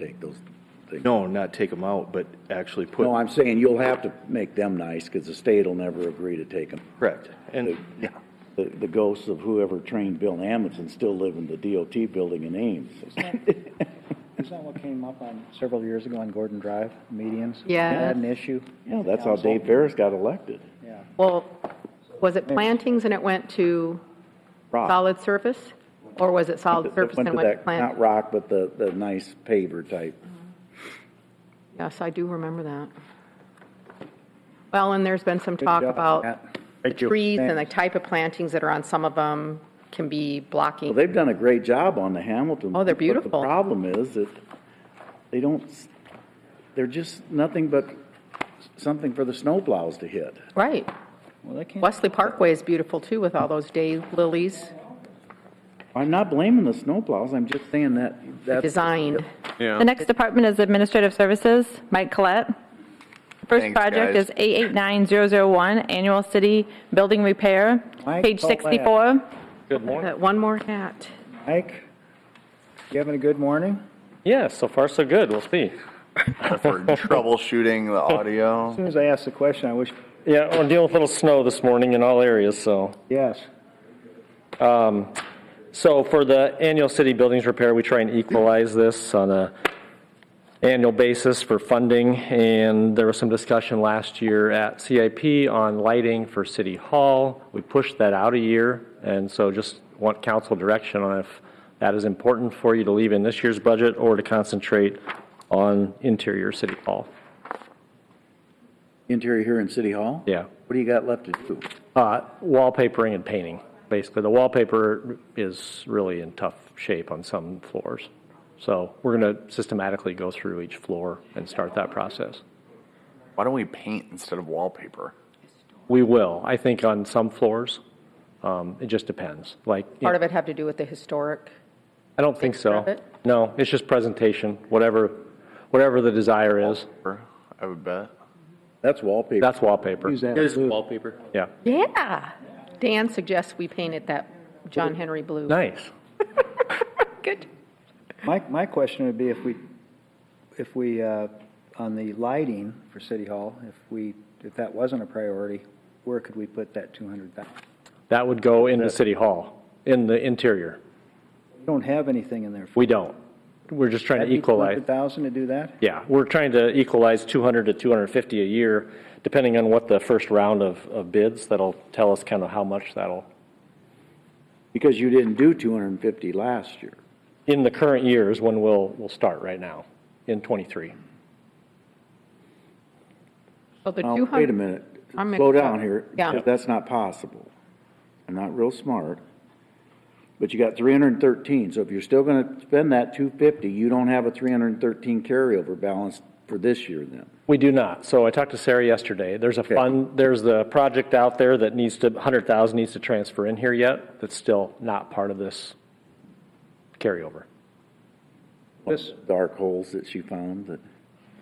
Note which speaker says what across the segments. Speaker 1: take those things.
Speaker 2: No, not take them out, but actually put.
Speaker 1: No, I'm saying you'll have to make them nice, because the state will never agree to take them.
Speaker 2: Correct. And, yeah,
Speaker 1: The, the ghosts of whoever trained Bill Amundson still live in the DOT building in Ames.
Speaker 3: Isn't that what came up on several years ago on Gordon Drive, medians?
Speaker 4: Yeah.
Speaker 3: We Had an issue?
Speaker 1: Yeah, that's how Dave Ferris got elected.
Speaker 3: Yeah.
Speaker 4: Well, was it plantings and it went to
Speaker 1: Rock.
Speaker 4: solid surface? Or was it solid
Speaker 1: That
Speaker 4: surface
Speaker 1: Ah. went
Speaker 4: and
Speaker 1: to
Speaker 4: went to
Speaker 1: that- Not
Speaker 4: plant?
Speaker 1: rock, but the, the nice paver type.
Speaker 4: Yes, I do remember that. Well, and there's been some talk
Speaker 3: job,
Speaker 4: about
Speaker 3: Matt.
Speaker 4: the
Speaker 3: Thank you.
Speaker 4: trees and the
Speaker 3: Thanks.
Speaker 4: type of plantings that are on some of them can be blocking.
Speaker 1: Well, they've done a great job on the Hamilton.
Speaker 4: Oh, they're
Speaker 1: but
Speaker 4: beautiful.
Speaker 1: The problem is that they don't, s- they're just nothing but something for the snowplows to hit.
Speaker 4: Right.
Speaker 3: Well, that can't,
Speaker 4: Wesley Parkway is beautiful too with all those day lilies
Speaker 1: I'm not blaming the snowplows, I'm just saying that, that's.
Speaker 4: designed.
Speaker 5: The next department is Administrative Services, Mike Collette. First
Speaker 6: Thanks,
Speaker 5: project
Speaker 6: guys.
Speaker 5: is 889001, Annual City Building Repair,
Speaker 3: Mike
Speaker 5: page
Speaker 3: Collette.
Speaker 5: 64.
Speaker 7: Good morning.
Speaker 4: That Uh, One more hat.
Speaker 3: Mike, you having a good morning?
Speaker 7: Yeah, so far so good. We'll see.
Speaker 6: for troubleshooting the audio.
Speaker 3: As soon as I asked the question, I wish,
Speaker 7: Yeah, we're dealing with a little snow this morning in all areas, so.
Speaker 3: yes.
Speaker 7: So for the annual city buildings repair, we try and equalize this on a annual basis for funding. And there was some discussion last year at CIP on lighting for City Hall. We pushed that out a year, and so just want council direction on if that is important for you to leave in this year's budget or to concentrate on interior City Hall.
Speaker 1: Interior here in City Hall?
Speaker 7: Yeah.
Speaker 1: What do you got left to do?
Speaker 7: Uh, wallpapering and painting, basically. The wallpaper is really in tough shape on some floors. So we're going to systematically go through each floor and start that process.
Speaker 6: Why don't we paint instead of wallpaper?
Speaker 7: We will, I think, on some floors. Um, it just depends. Like, you
Speaker 4: Part
Speaker 7: know,
Speaker 4: of it have to do with the historic.
Speaker 7: I don't think
Speaker 4: Part of
Speaker 7: so.
Speaker 4: it?
Speaker 7: No, it's just presentation, whatever, whatever the desire is.
Speaker 6: I would bet.
Speaker 1: That's wallpaper.
Speaker 7: That's wallpaper.
Speaker 3: Use that
Speaker 8: wallpaper.
Speaker 7: Yeah.
Speaker 4: Yeah. Dan suggests we painted that John Henry blue.
Speaker 7: Nice.
Speaker 4: Good.
Speaker 3: My, my question would be if we, if we, uh, on the lighting for City Hall, if we, if that wasn't a priority, where could we put that 200,000?
Speaker 7: That would go in the city hall, in the interior.
Speaker 3: We don't have anything in there. for
Speaker 7: We don't. We're just trying to equalize.
Speaker 3: 200,000 to do that?
Speaker 7: Yeah, we're trying to equalize 200 to 250 a year, depending on what the first round of, of bids, that'll tell us kind of how much that'll,
Speaker 1: Because you didn't do two hundred and fifty last year.
Speaker 7: in the current year is when we'll, we'll start right now, in '23.
Speaker 4: So Oh, the
Speaker 1: Now,
Speaker 4: 200
Speaker 1: wait a minute,
Speaker 4: I'm
Speaker 1: slow
Speaker 4: mixed up.
Speaker 1: down here.
Speaker 4: Yeah.
Speaker 1: because That's not possible. I'm not real smart. But you got three hundred and thirteen, so if you're still gonna spend that two fifty, you don't have a three hundred and thirteen carryover balance for this year then.
Speaker 7: We do not. So I talked to Sarah yesterday. There's a fund, there's the project out there that needs to, 100,000 needs to transfer in here yet, that's still not part of this carryover.
Speaker 1: Yes. Dark holes that she found that,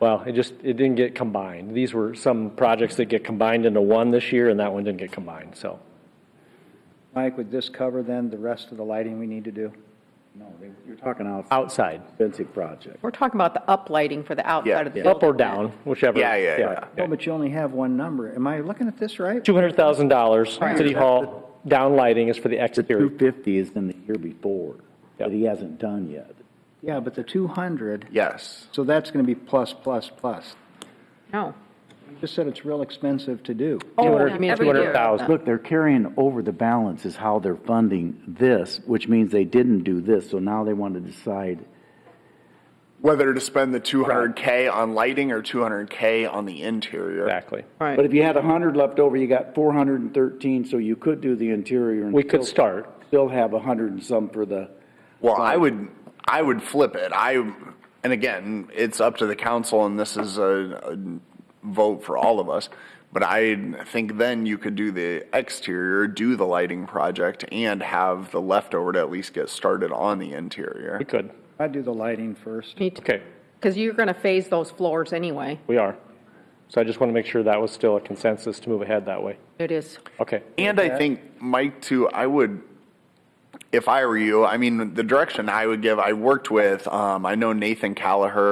Speaker 7: Well, it just, it didn't get combined. These were some projects that get combined into one this year, and that one didn't get combined, so.
Speaker 3: Mike, would this cover then the rest of the lighting we need to do?
Speaker 1: no, they- you're talking out
Speaker 7: Outside.
Speaker 1: expensive project.
Speaker 4: We're talking about the uplighting for the outside of the building.
Speaker 7: Up or down, whichever.
Speaker 6: Yeah, yeah, yeah.
Speaker 3: No, but you only have one number. Am I looking at this right?
Speaker 7: Two hundred thousand dollars, city hall, down lighting is for the
Speaker 1: The two
Speaker 7: exterior.
Speaker 1: fifty is in the year before, that
Speaker 7: Yep.
Speaker 1: he hasn't done yet.
Speaker 3: Yeah, but the 200,
Speaker 6: Yes.
Speaker 3: so that's going to be plus, plus, plus.
Speaker 4: No.
Speaker 3: You just said it's real expensive to do.
Speaker 4: Oh, I mean,
Speaker 7: Two hundred thousand.
Speaker 1: Look, they're carrying over the balance is how they're funding this, which means they didn't do this, so now they want to decide.
Speaker 6: Whether to spend the 200K on lighting or 200K on the interior.
Speaker 7: Exactly.
Speaker 1: But if you had a hundred left over, you got four hundred and thirteen, so you could do the interior and.
Speaker 7: We could
Speaker 1: still-
Speaker 7: start.
Speaker 1: Still have a hundred and some for the,
Speaker 6: Well, I would, I would flip it. I, and again, it's up to the council, and this is a, a vote for all of us. But I think then you could do the exterior, do the lighting project, and have the leftover to at least get started on the interior.
Speaker 7: We could.
Speaker 3: I'd do the lighting first.
Speaker 7: Okay,
Speaker 4: Because you're going to phase those floors anyway.
Speaker 7: we are. So I just want to make sure that was still a consensus to move ahead that way.
Speaker 4: It is.
Speaker 7: Okay.
Speaker 6: And I think Mike too. I would, if I were you, I mean, the direction I would give. I worked with. Um, I know Nathan Callaher